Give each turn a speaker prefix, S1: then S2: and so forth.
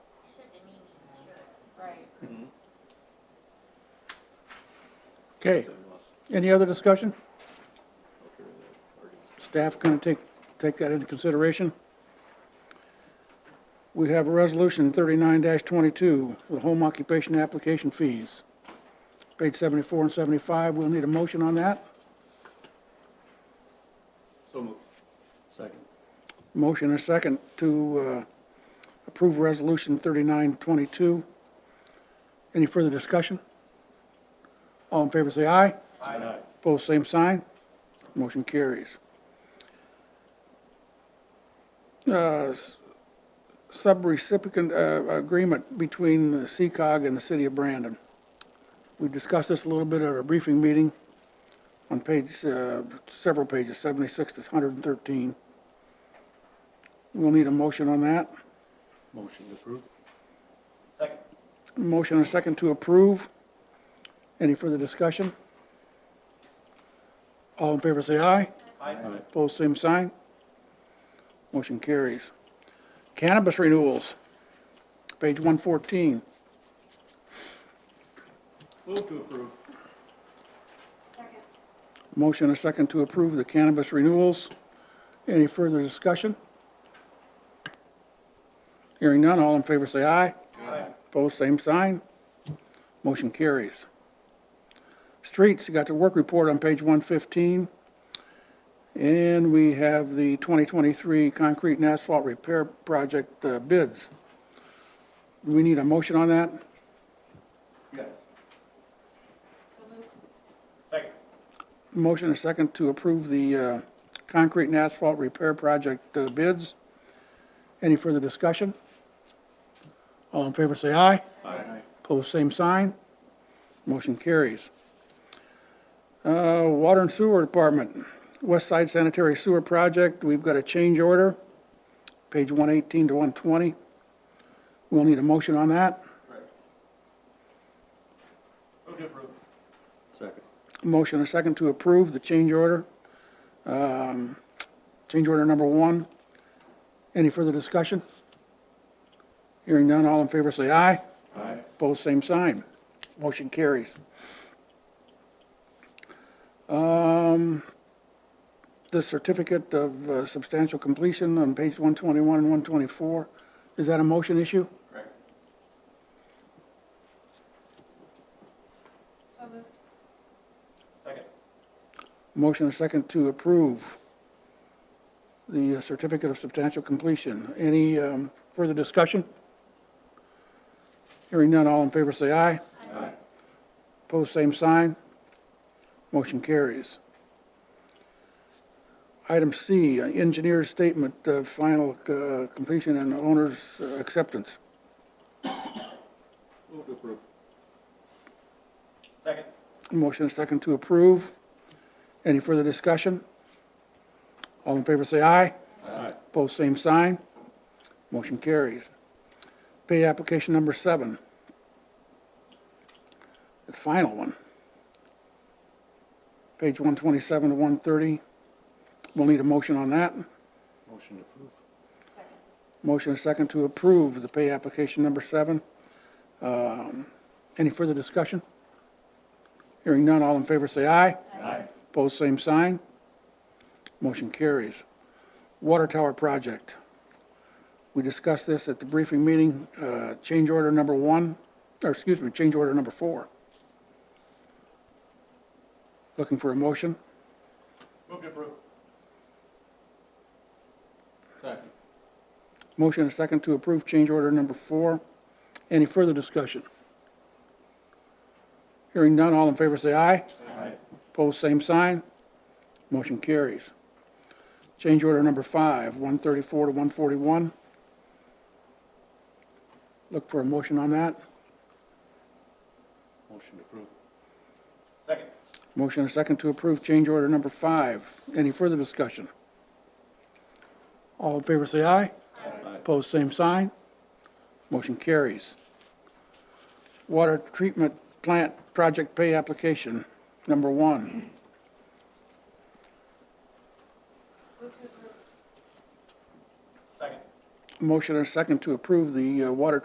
S1: Okay. Any other discussion? Staff going to take, take that into consideration. We have a resolution thirty-nine twenty-two, the home occupation application fees. Page seventy-four and seventy-five, we'll need a motion on that.
S2: So moved. Second.
S1: Motion and a second to uh, approve Resolution 3922. Any further discussion? All in favor, say aye.
S2: Aye.
S1: Opposed, same sign. Motion carries. Uh, s- Subrecipient uh, agreement between the CCOG and the City of Brandon. We discussed this a little bit at our briefing meeting on page, uh, several pages, 76 to 113. We'll need a motion on that.
S2: Motion approved. Second.
S1: Motion and a second to approve. Any further discussion? All in favor, say aye.
S2: Aye.
S1: Opposed, same sign. Motion carries. Cannabis renewals, page 114.
S2: Move to approve.
S1: Motion and a second to approve the cannabis renewals. Any further discussion? Hearing none, all in favor say aye.
S2: Aye.
S1: Opposed, same sign. Motion carries. Streets, you got the work report on page 115. And we have the 2023 concrete and asphalt repair project uh, bids. Do we need a motion on that?
S2: Yes. Second.
S1: Motion and a second to approve the uh, concrete and asphalt repair project uh, bids. Any further discussion? All in favor, say aye.
S2: Aye.
S1: Pose same sign. Motion carries. Uh, Water and Sewer Department, West Side Sanitary Sewer Project, we've got a change order, page 118 to 120. We'll need a motion on that.
S2: Move to approve. Second.
S1: Motion and a second to approve the change order. Um, Change order number one. Any further discussion? Hearing none, all in favor say aye.
S2: Aye.
S1: Opposed, same sign. Motion carries. Um, The certificate of uh, substantial completion on page 121 and 124, is that a motion issue?
S2: Correct.
S3: So moved.
S2: Second.
S1: Motion and second to approve the uh, certificate of substantial completion. Any um, further discussion? Hearing none, all in favor say aye.
S2: Aye.
S1: Opposed, same sign. Motion carries. Item C, engineer's statement of final uh, completion and owner's uh, acceptance.
S2: Move to approve. Second.
S1: Motion and second to approve. Any further discussion? All in favor say aye.
S2: Aye.
S1: Both same sign. Motion carries. Pay application number seven. The final one. Page 127 to 130. We'll need a motion on that.
S2: Motion approved.
S1: Motion and second to approve the pay application number seven. Um, Any further discussion? Hearing none, all in favor say aye.
S2: Aye.
S1: Both same sign. Motion carries. Water tower project. We discussed this at the briefing meeting, uh, change order number one, or excuse me, change order number four. Looking for a motion.
S2: Move to approve. Second.
S1: Motion and a second to approve change order number four. Any further discussion? Hearing none, all in favor say aye.
S2: Aye.
S1: Pose same sign. Motion carries. Change order number five, 134 to 141. Look for a motion on that.
S2: Motion approved. Second.
S1: Motion and a second to approve change order number five. Any further discussion? All in favor say aye.
S2: Aye.
S1: Pose same sign. Motion carries. Water treatment plant project pay application, number one.
S2: Second.
S1: Motion and a second to approve the uh, water